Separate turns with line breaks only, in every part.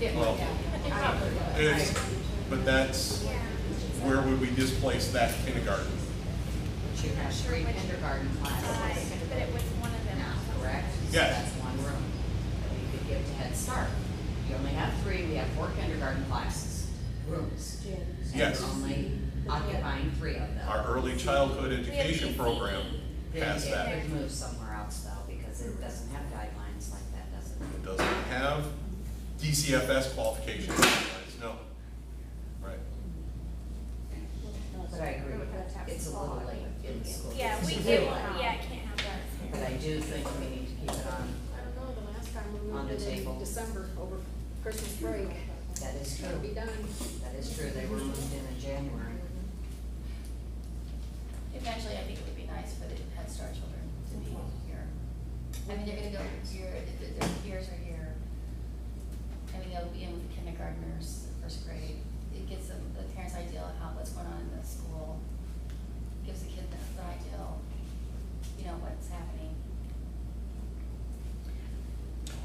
It
Well,
might, yeah.
It's, but that's, where would we displace that kindergarten?
She has three kindergarten classes,
uh, But it was one of them.
now, correct? So
Yes.
That's one room that we could give to Head Start. You only have three, we have four kindergarten classes, rooms. and we're
Yes.
only occupying three of them.
Our early childhood education
ECE.
program
Then
has that.
It could move somewhere else though, because it doesn't have guidelines like that, does
It
it?
Doesn't have DCFS qualifications, guidelines, no. Right.
But I agree,
It would have to have
it's a little
law.
late in the school.
Yeah, we
It's
can't,
really late.
yeah, I can't have that.
But I do think we need to keep it on,
I don't know, the last time we
On
moved
the
it
table.
in December over Christmas break,
that is
that'll be
true,
done.
that is true, they were moved in in January.
Eventually, I think it would be nice for the Head Start children to be here. I mean, they're gonna go year, th- their years are here. I mean, they'll be in with the kindergartners, the first grade. It gives them the parents' idea of how, what's going on in the school. Gives the kid the the ideal, you know, what's happening.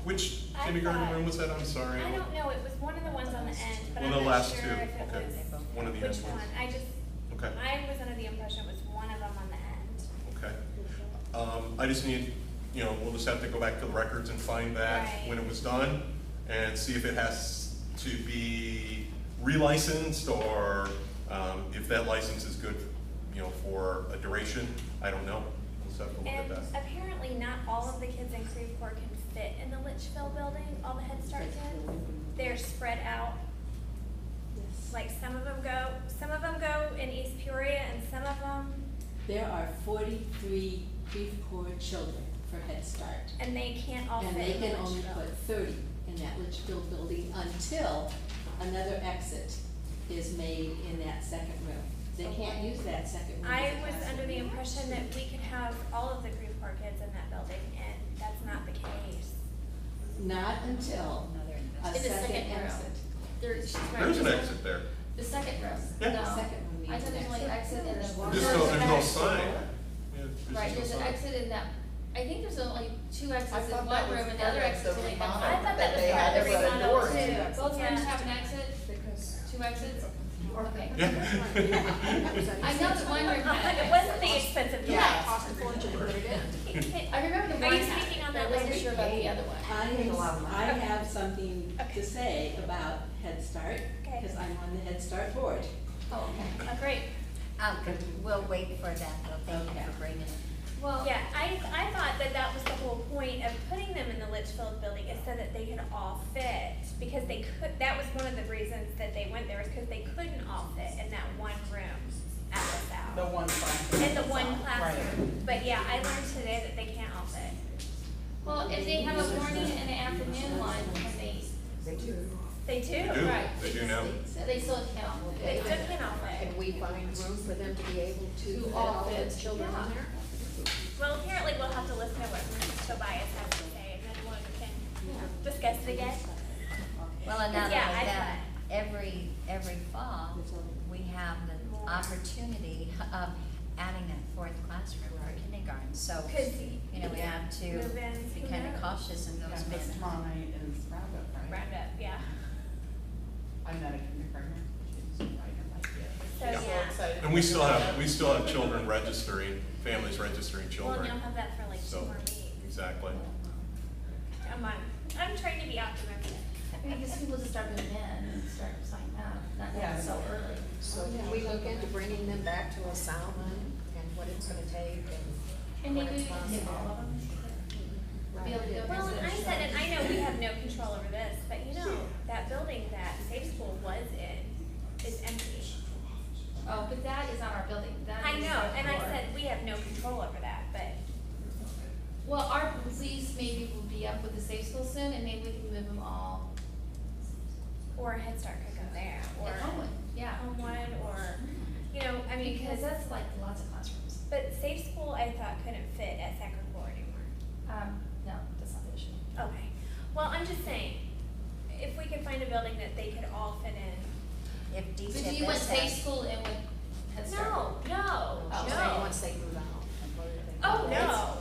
Which
I
kindergarten
thought-
room was that, I'm sorry?
I don't know, it was one of the ones on the end, but I'm
One of the
not
last
sure
two,
if it
okay. One of
was,
the
which
end ones.
one, I just,
Okay,
I was under the impression it was one of them on the end.
okay. Um, I just need, you know, we'll just have to go back to the records and find that
Right.
when it was done and see if it has to be relicensed or, um, if that license is good, you know, for a duration. I don't know. We'll just have to look at
And
that.
apparently not all of the kids in Creveport can fit in the Litchfield building, all the Head Start kids. They're spread out,
Yes.
like some of them go, some of them go in East Peoria and some of them,
There are forty-three Creveport children for Head Start.
and they can't all
And
fit
they
in
can only
Litchfield.
put thirty in that Litchfield building until another exit is made in that second room. They can't use that second room.
I
as a
was
classroom.
under the impression that we could have all of the Creveport kids in that building, and that's not the case.
Not until a
In the second
second
row.
exit.
There, she's right.
There's an exit there.
The second row.
Yeah.
No.
Second would be
I thought
the
there's only
exit.
exit in the.
There's
There's no, there's no sign. Yeah,
Right, there's
no
an
sign.
exit in that, I think there's only two
I
exits in
thought
one
that was
room and the
part
other
of
exit's
the
only one.
remodel,
room.
I thought that
that
was
they
part of the
had to put
remodel
doors in.
too.
Both rooms
Yeah.
have an exit,
Because.
two exits? Okay.
Yeah.
I know that one room had an
It wasn't
exit.
the expensive
Yeah.
Cost a fortune to put it in.
I remember the
Are
one
you
had,
speaking
it,
on
but I
that
wasn't
later?
sure about the other one.
I
Take a lot of
I have something
Okay.
to say about Head Start,
Okay.
because I'm on the Head Start board.
Oh, okay.
Oh, great.
Um, we'll wait for that, though, thank you for bringing it.
Well,
Yeah, I, I thought that that was the whole point of putting them in the Litchfield building, is so that they could all fit, because they could, that was one of the reasons that they went there, is because they couldn't all fit in that one room at LaSalle.
The one classroom.
In the one
Right.
classroom, but yeah, I learned today that they can't all fit.
well, if they have a morning and an afternoon one, can they,
They do.
They do.
They do,
right.
they do now.
they still count?
They still can't all fit.
Can we find room for them to be able to
To
fit
all
all
fit.
the children in there?
Well, apparently we'll have to listen to what Tobias has to say, and then we can discuss it again.
Well, and not only
Yeah, I
that, every, every fall, we have the
More.
opportunity of adding a fourth classroom for kindergarten, so,
Because,
you know, we have to
Move-ins,
be
who
kind
knows?
of cautious in
Yeah,
those
but tomorrow
matters.
night is roundup, right?
round up, yeah.
I'm not a kindergartner, she's a writer, like,
So,
yeah.
yeah.
And we still have, we still have children registering, families registering
Well, and
children.
you'll have that for like two
So,
more weeks,
exactly.
a month. I'm trying to be optimistic.
I mean, I guess people just start moving in and start signing up, not
Yeah.
so early.
So can we look into bringing them back to a Salmon and what it's gonna take and
And
when
maybe we
it's
can take all of
possible?
them. Be able to do it.
Well, and I said, and I know we have no control over this, but you know, that building that Safe School was in is empty.
Oh, but that is on our building, that is.
I know,
our
and I
floor.
said, we have no control over that, but
Well, our lease maybe will be up with the safe school soon, and maybe we can move them all.
or Head Start could go there, or
at Homewood, Yeah.
Home One, or, you know, I mean,
Because
because,
that's like lots of classrooms.
but Safe School, I thought couldn't fit at Sacred Coeur anymore.
Um, no, that's not the issue.
Okay, well, I'm just saying, if we could find a building that they could all fit in,
If
But do you want
DCFS
safe
has,
school and with Head Start?
No, no,
Oh,
no.
Once they move out.
Oh,
No.